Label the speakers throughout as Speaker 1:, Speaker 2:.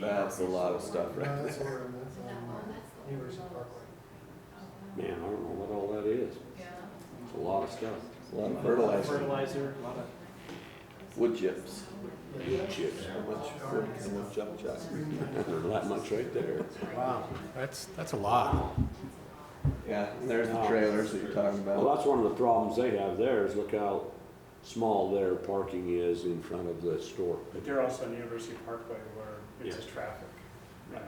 Speaker 1: That's a lot of stuff
Speaker 2: No,
Speaker 1: right
Speaker 2: that's
Speaker 1: there.
Speaker 2: horrible.
Speaker 3: Is it that one? That's the
Speaker 2: University
Speaker 3: one.
Speaker 2: Parkway.
Speaker 4: Man, I don't know what all that is. It's a lot of stuff.
Speaker 1: A lot of fertilizer,
Speaker 5: Fertilizer, a lot of
Speaker 1: wood chips,
Speaker 2: Yeah.
Speaker 1: chips, wood, wood, and wood jump chuck.
Speaker 5: Mm-hmm.
Speaker 4: There's that much right there.
Speaker 6: Wow, that's, that's a lot.
Speaker 1: Yeah, and there's the trailers that you're talking
Speaker 4: Well,
Speaker 1: about.
Speaker 4: that's one of the problems they have there is look how small their parking is in front of the store.
Speaker 5: But they're also on University Parkway where it's just traffic. Yeah.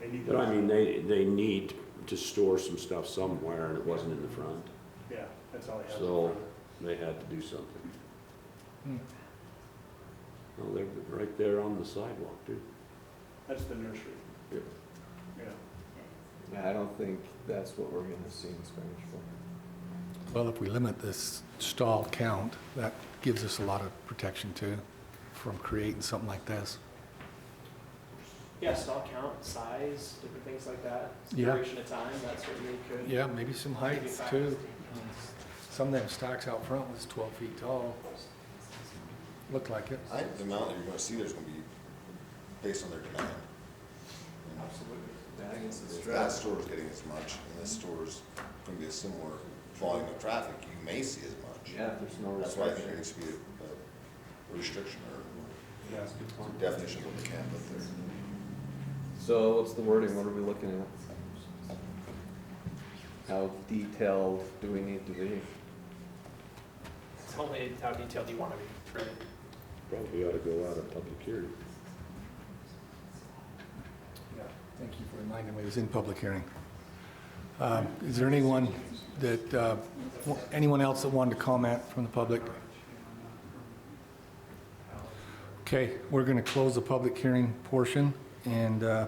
Speaker 5: They need.
Speaker 4: But I
Speaker 5: those.
Speaker 4: mean, they, they need to store some stuff somewhere and it wasn't in the front.
Speaker 5: Yeah, that's all they have.
Speaker 4: So- They had to do something.
Speaker 6: Hmm.
Speaker 4: Well, they're right there on the sidewalk too.
Speaker 5: That's the nursery.
Speaker 4: Yep.
Speaker 5: Yeah.
Speaker 1: Yeah, I don't think that's what we're gonna see in Spanish Fork.
Speaker 6: Well, if we limit this stall count, that gives us a lot of protection too from creating something like this.
Speaker 7: Yeah, stall count, size, different things like that.
Speaker 6: Yeah.
Speaker 7: Duration of time, that certainly could.
Speaker 6: Yeah, maybe some heights too. Some of them stocks out front was 12 feet tall. Looked like it.
Speaker 8: I think the amount that you're gonna see there's gonna be based on their demand.
Speaker 1: Absolutely. Yeah, I guess it's
Speaker 8: If
Speaker 1: true.
Speaker 8: that store's getting as much, and this store's gonna be a similar volume of traffic, you may see as much.
Speaker 1: Yeah, if there's no
Speaker 8: That's why I think
Speaker 1: restriction.
Speaker 8: there needs to be a- a restriction or
Speaker 5: Yeah, that's a good point.
Speaker 8: some definition of what they can put there.
Speaker 1: So what's the wording? What are we looking at? How detailed do we need to be?
Speaker 7: It's only how detailed you want to be. Right.
Speaker 4: Probably ought to go out of public hearing.
Speaker 5: Yeah.
Speaker 6: Thank you for reminding me, it was in public hearing. Um, Is there anyone that, uh, wa- anyone else that wanted to comment from the public? Okay, we're going to close the public hearing portion, and uh,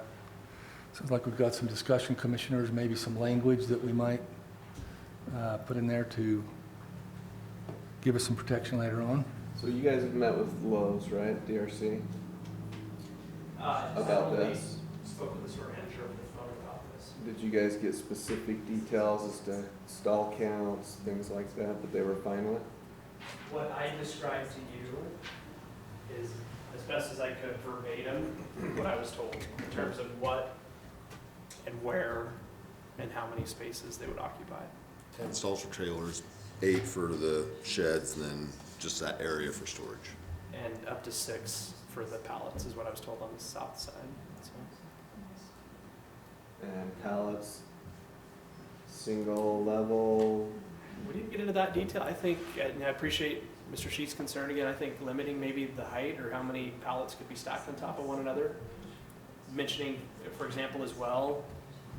Speaker 6: sounds like we've got some discussion, commissioners, maybe some language that we might uh, put in there to give us some protection later on.
Speaker 1: So you guys have met with Lowe's, right, DRC,
Speaker 7: Uh, so
Speaker 1: about
Speaker 7: we
Speaker 1: this?
Speaker 7: Spoke with the store manager over the phone about this.
Speaker 1: Did you guys get specific details as to stall counts, things like that, that they were fine with?
Speaker 7: What I described to you is as best as I could verbatim what I was told in terms of what and where and how many spaces they would occupy.
Speaker 8: Ten stalls for trailers, eight for the sheds, and then just that area for storage.
Speaker 7: And up to six for the pallets is what I was told on the south side, so.
Speaker 1: And pallets, single level,
Speaker 7: We didn't get into that detail. I think, and I appreciate Mr. Sheets' concern again, I think limiting maybe the height or how many pallets could be stacked on top of one another. Mentioning, for example, as well,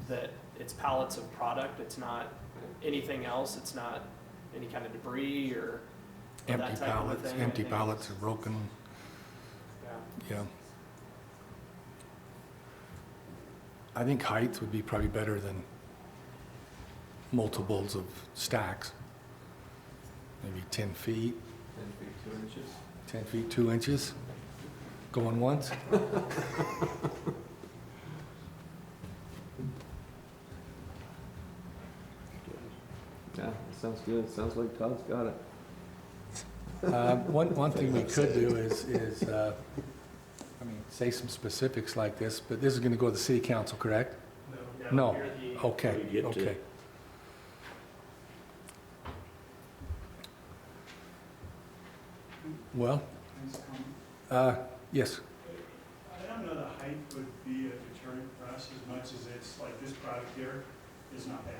Speaker 7: that it's pallets of product, it's not anything else, it's not any kind of debris or or that
Speaker 6: Empty
Speaker 7: type of a
Speaker 6: pallets,
Speaker 7: thing, I
Speaker 6: empty
Speaker 7: think.
Speaker 6: pallets are broken,
Speaker 7: Yeah.
Speaker 6: yeah. I think heights would be probably better than multiples of stacks. Maybe 10 feet,
Speaker 1: ten feet, two inches.
Speaker 6: 10 feet, 2 inches, going once.
Speaker 1: Yeah, that sounds good. Sounds like Todd's got it.
Speaker 6: Uh, One, one thing we could do is, is, uh, I mean, say some specifics like this, but this is going to go to the city council, correct? No.
Speaker 7: Here the-
Speaker 6: Okay,
Speaker 4: We get to-
Speaker 6: okay. Well, uh, yes,
Speaker 5: I don't know that height would be a deterrent for us as much as it's like this product here is not bad.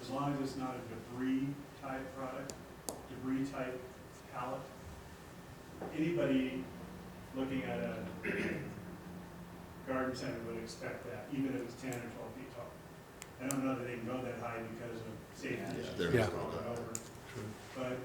Speaker 5: As long as it's not a debris type product, debris type pallet. Anybody looking at a garden center would expect that, even if it's ten or twelve feet tall. I don't know that they can go that high because of
Speaker 8: Yeah,
Speaker 5: safety. issues
Speaker 8: they're
Speaker 6: Yeah.
Speaker 8: not gonna go that high.
Speaker 5: But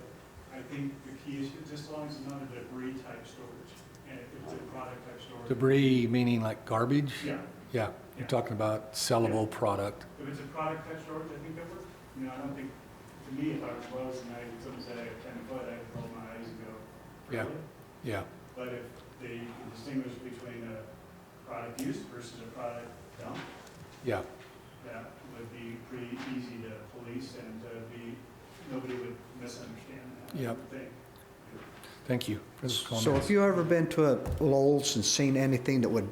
Speaker 5: I think the key is just as long as it's not a debris type storage and if it's a product type storage.
Speaker 6: debris meaning like garbage?
Speaker 5: Yeah,
Speaker 6: Yeah, you're talking about sellable product.
Speaker 5: if it's a product type storage, I think that works. You know, I don't think, to me, if I was Lowe's and I, someone said I have ten foot, I'd roll my eyes and go,
Speaker 6: Yeah.
Speaker 5: really?
Speaker 6: Yeah,
Speaker 5: But if they can distinguish between a product use versus a product dump,
Speaker 6: yeah,
Speaker 5: that would be pretty easy to police and uh, be, nobody would misunderstand that, I
Speaker 6: Yep.
Speaker 5: would think.
Speaker 6: thank you for those
Speaker 9: So
Speaker 6: comments.
Speaker 9: have you ever been to a Lowell's and seen anything that would